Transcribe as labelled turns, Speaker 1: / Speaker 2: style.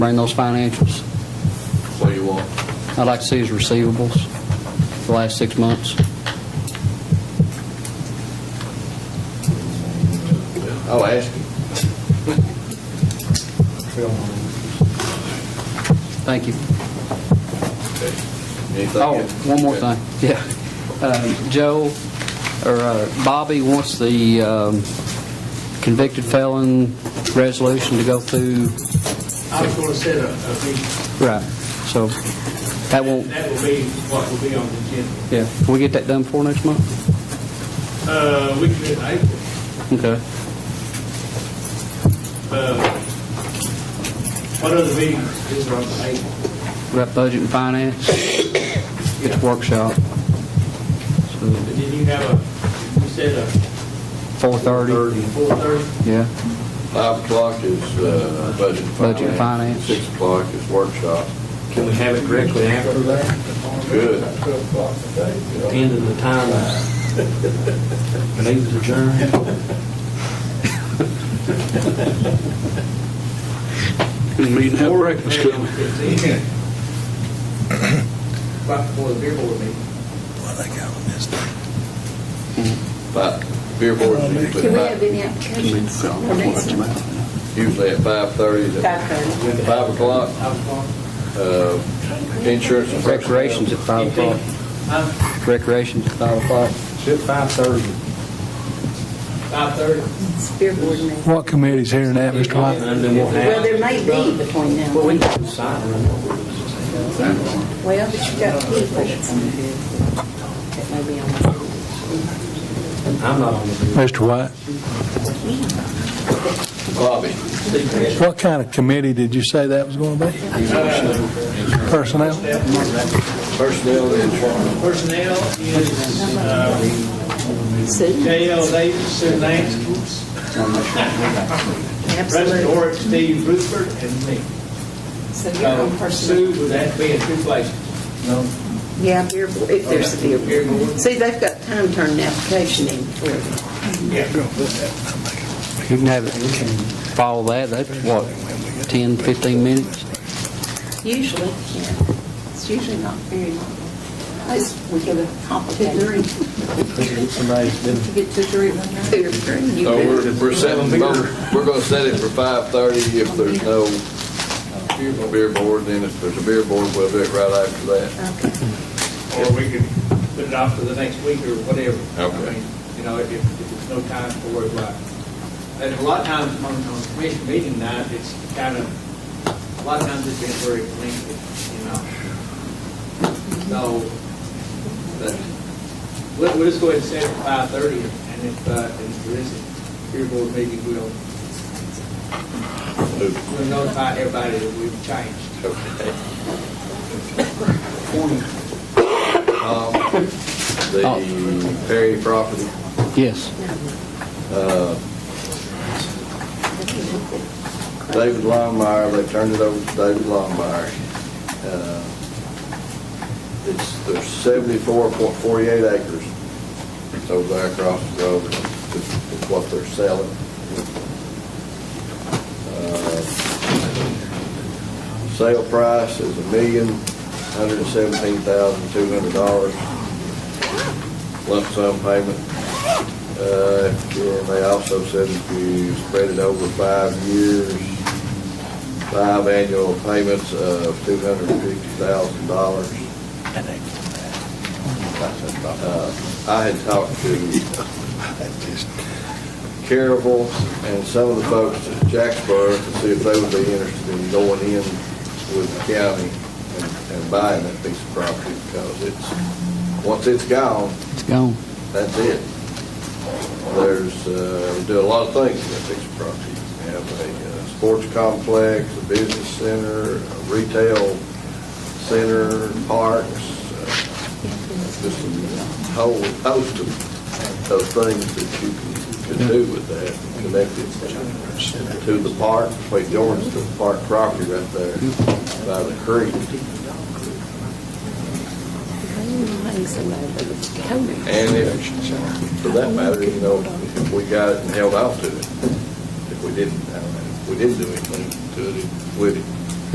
Speaker 1: bring those financials.
Speaker 2: What do you want?
Speaker 1: I'd like to see his receivables the last six months.
Speaker 2: I'll ask you.
Speaker 1: Thank you.
Speaker 2: Okay. Anything?
Speaker 1: Oh,
Speaker 2: else?
Speaker 1: one more
Speaker 2: Okay.
Speaker 1: thing, yeah. Um, Joe, or uh, Bobby wants the um, convicted felon resolution to go through,
Speaker 3: I was gonna set a, a meeting,
Speaker 1: right, so that won't,
Speaker 3: that will be what will be on the agenda.
Speaker 1: yeah, can we get that done for next month?
Speaker 3: Uh, we can, I,
Speaker 1: Okay.
Speaker 3: uh, what other meetings is on the eight?
Speaker 1: We got budget and finance, it's workshop,
Speaker 3: But then you have a, you said a
Speaker 1: 4:30,
Speaker 3: four thirty?
Speaker 1: yeah.
Speaker 2: Five o'clock is uh, budget and finance.
Speaker 1: Budget and finance.
Speaker 2: Six o'clock is workshop.
Speaker 4: Can we have it directly after that,
Speaker 2: Good.
Speaker 4: end of the timeline? Leave the adjourned?
Speaker 5: Meeting have breakfast, couldn't we?
Speaker 3: Right before the beer board meeting.
Speaker 2: But beer board's usually
Speaker 6: Do we have
Speaker 2: about-
Speaker 6: any applications? for next month?
Speaker 2: usually at five thirty to five o'clock. Uh, Insurance and
Speaker 1: Recreation's at 5 o'clock,
Speaker 3: Huh?
Speaker 1: recreation's at 5 o'clock.
Speaker 4: It's five thirty.
Speaker 3: Five thirty?
Speaker 6: It's beer board meeting.
Speaker 7: What committee's hearing that, Mr. White?
Speaker 4: And then we'll
Speaker 6: Well,
Speaker 4: have,
Speaker 6: there may be between now.
Speaker 4: well, we
Speaker 6: and then.
Speaker 4: can decide.
Speaker 6: Well, but you got people that's on here. That may be on.
Speaker 4: I'm not on the
Speaker 7: Mr. White,
Speaker 2: Bobby,
Speaker 7: what kind of committee did you say that was going to be? Personnel?
Speaker 2: personnel and insurance.
Speaker 3: Personnel is, uh,
Speaker 6: Sue?
Speaker 3: J.L. Davis, Sue Nance, President
Speaker 6: Absolutely.
Speaker 3: Orrick, Steve Rutherford, and me.
Speaker 6: So you're on
Speaker 3: So Sue
Speaker 6: personnel.
Speaker 3: would have to be in two places.
Speaker 6: Yeah, beer board, if there's a beer
Speaker 3: Beer
Speaker 6: board.
Speaker 3: board.
Speaker 6: See, they've got time turning application in for it.
Speaker 1: You can have it, follow that, that's what, 10, 15 minutes?
Speaker 6: Usually, yeah. It's usually not very long. It's, we get a complicated. Get two, three. Two, or three. You
Speaker 2: So
Speaker 6: bet.
Speaker 2: we're, we're setting, both- we're gonna set it for five thirty if there's no beer board, then if there's a beer board, we'll do it right after that.
Speaker 3: Or we could put it off to the next week or whatever.
Speaker 2: Okay.
Speaker 3: I mean, You know, if, if there's no time for it, right. And a lot of times on, on commission meeting night, it's kind of, a lot of times it's been very lengthy, you know. So, but we'll, we'll just go ahead and set it at five thirty and if, uh, if there is a beer board meeting, we'll, we'll notify everybody that we've changed.
Speaker 2: Um, The
Speaker 1: Oh.
Speaker 2: Perry property.
Speaker 1: Yes.
Speaker 2: David Longmire, they turned it over to David Longmire. Uh, It's, there's seventy-four point forty-eight acres. It's over there across the road, It's it's what they're selling. Uh, Sale price is a million, hundred and seventeen thousand, two hundred dollars. Lump sum payment, uh, And they also said if you spread it over five years, five annual payments of $250,000. Uh, I had talked to Carnival and some of the folks at Jacksboro to see if they would be interested in going in with the county and- and buying that piece of property because it's, once it's gone,
Speaker 1: It's gone.
Speaker 2: that's it. There's, uh, we do a lot of things with this property. We have a uh, sports complex, a business center, a retail center, parks, uh, just a whole host of, of things that you can, can do with that, connected to the park, wait, Jordan's to the park property right there by the creek. And if, for that matter, you know, if we got it and held out to it, if we didn't, I mean, if we didn't do anything to it, it would,